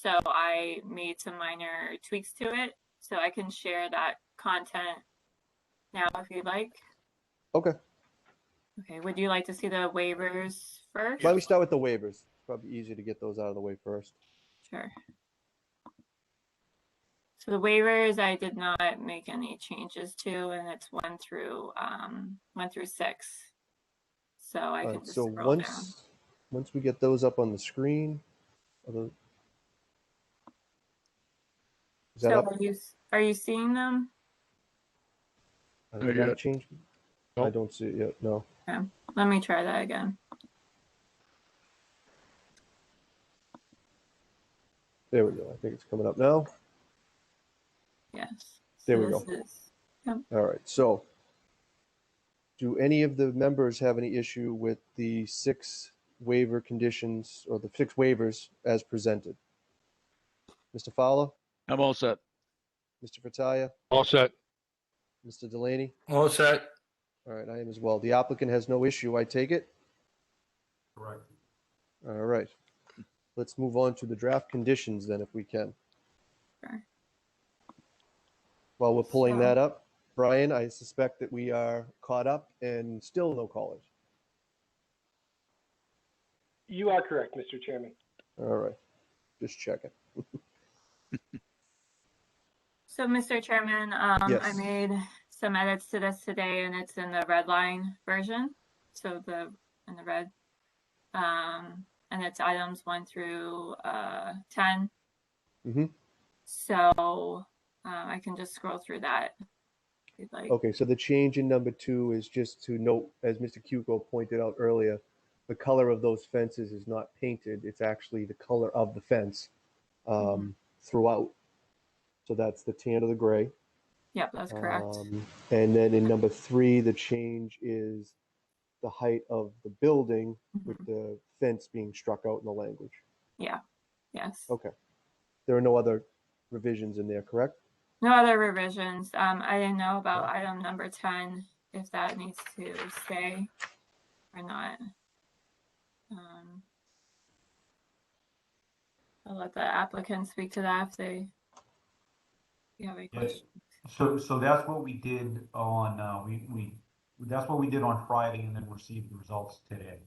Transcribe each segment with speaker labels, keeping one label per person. Speaker 1: So I made some minor tweaks to it. So I can share that content now if you'd like.
Speaker 2: Okay,
Speaker 1: Okay, would you like to see the waivers first?
Speaker 2: why don't we start with the waivers? Probably easier to get those out of the way first.
Speaker 1: Sure. So the waivers, I did not make any changes to, and it's one through, um, one through six. So I can
Speaker 2: Alright,
Speaker 1: just
Speaker 2: so
Speaker 1: scroll down.
Speaker 2: once, once we get those up on the screen. are those- Is that
Speaker 1: So
Speaker 2: up?
Speaker 1: are you, s- are you seeing them?
Speaker 2: Has
Speaker 3: Not
Speaker 2: it not
Speaker 3: yet.
Speaker 2: changed? I
Speaker 3: Nope.
Speaker 2: don't see it yet, no.
Speaker 1: Let me try that again.
Speaker 2: There we go, I think it's coming up now.
Speaker 1: Yes.
Speaker 2: There
Speaker 1: So
Speaker 2: we go.
Speaker 1: this is-
Speaker 2: All right, so do any of the members have any issue with the six waiver conditions or the six waivers as presented? Mr. Fowler,
Speaker 3: I'm all set.
Speaker 2: Mr. Frataia,
Speaker 3: All set.
Speaker 2: Mr. Delaney?
Speaker 4: All set.
Speaker 2: All right, I am as well. The applicant has no issue, I take it?
Speaker 4: Right.
Speaker 2: All right. Let's move on to the draft conditions then if we can.
Speaker 1: Sure.
Speaker 2: While we're pulling
Speaker 1: So-
Speaker 2: that up, Brian, I suspect that we are caught up and still no callers.
Speaker 5: You are correct, Mr. Chairman.
Speaker 2: All right, just checking.
Speaker 1: So, Mr. Chairman, um, I
Speaker 2: Yes.
Speaker 1: made some edits to this today and it's in the red line version. So the, in the red. Um, and it's items one through, uh, ten.
Speaker 2: Mhm.
Speaker 1: So, um, I can just scroll through that. if you'd like.
Speaker 2: Okay, so the change in number two is just to note, as Mr. Cuco pointed out earlier, the color of those fences is not painted. It's actually the color of the fence
Speaker 1: Mm-hmm.
Speaker 2: um, throughout. So that's the tan or the gray.
Speaker 1: Yep, that's correct.
Speaker 2: Um, And then in number three, the change is the height of the building with
Speaker 1: Mhm.
Speaker 2: the fence being struck out in the language.
Speaker 1: Yes.
Speaker 2: Okay. There are no other revisions in there, correct?
Speaker 1: No other revisions. Um, I didn't know about item number ten, if that needs to stay or not. Um, I'll let the applicant speak to that if they. You have any
Speaker 6: Yes.
Speaker 1: questions?
Speaker 6: So, so that's what we did on, uh, we, we, that's what we did on Friday and then received the results today.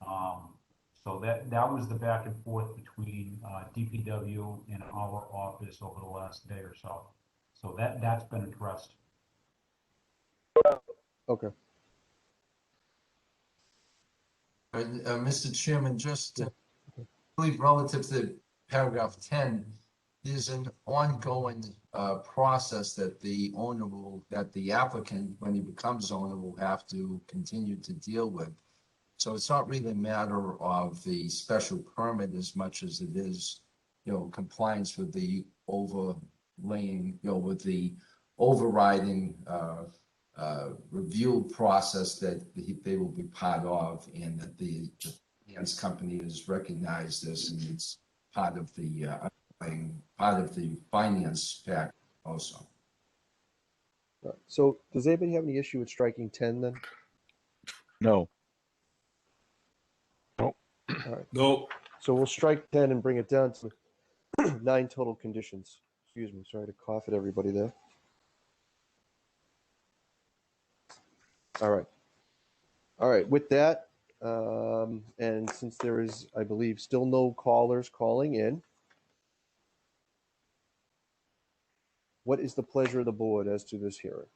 Speaker 6: Um, so that, that was the back and forth between, uh, DPW and our office over the last day or so. So that, that's been addressed.
Speaker 2: Okay.
Speaker 7: Uh, uh, Mr. Chairman, just, uh, I believe relative to paragraph ten, there's an ongoing, uh, process that the owner will, that the applicant, when he becomes owner, will have to continue to deal with. So it's not really a matter of the special permit as much as it is, you know, compliance with the overlaying, you know, with the overriding, uh, uh, review process that he- they will be part of and that the Japan's company is recognized as, and it's part of the, uh, underlying- part of the finance pack also.
Speaker 2: All right. So does anybody have any issue with striking ten then?
Speaker 3: No.
Speaker 4: No,
Speaker 2: So we'll strike ten and bring it down to nine total conditions. Excuse me, sorry to cough at everybody there. All right. All right, with that, um, and since there is, I believe, still no callers calling in. What is the pleasure of the board as to this hearing?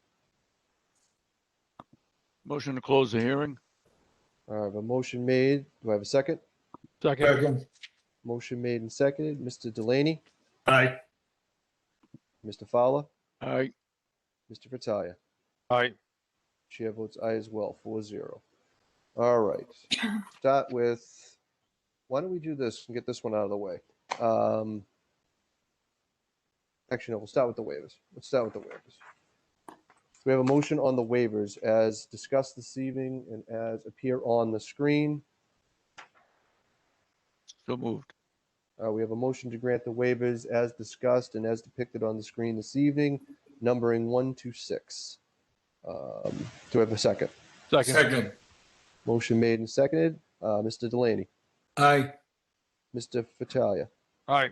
Speaker 3: Motion to close the hearing?
Speaker 2: All right, a motion made. Do I have a second?
Speaker 3: Second.
Speaker 2: Motion made and seconded. Mr. Delaney,
Speaker 4: aye.
Speaker 2: Mr. Fowler,
Speaker 3: Aye.
Speaker 2: Mr. Frataia.
Speaker 3: Aye.
Speaker 2: Chair votes aye as well, four zero. All right, start with, why don't we do this and get this one out of the way? Um, Actually, no, we'll start with the waivers. Let's start with the waivers. We have a motion on the waivers as discussed this evening and as appear on the screen.
Speaker 3: So moved.
Speaker 2: Uh, we have a motion to grant the waivers as discussed and as depicted on the screen this evening, numbering one to six. Um, Do I have a second?
Speaker 4: Second,
Speaker 2: Motion made and seconded. Uh, Mr. Delaney,
Speaker 4: aye.
Speaker 2: Mr. Fattalia,
Speaker 3: Aye.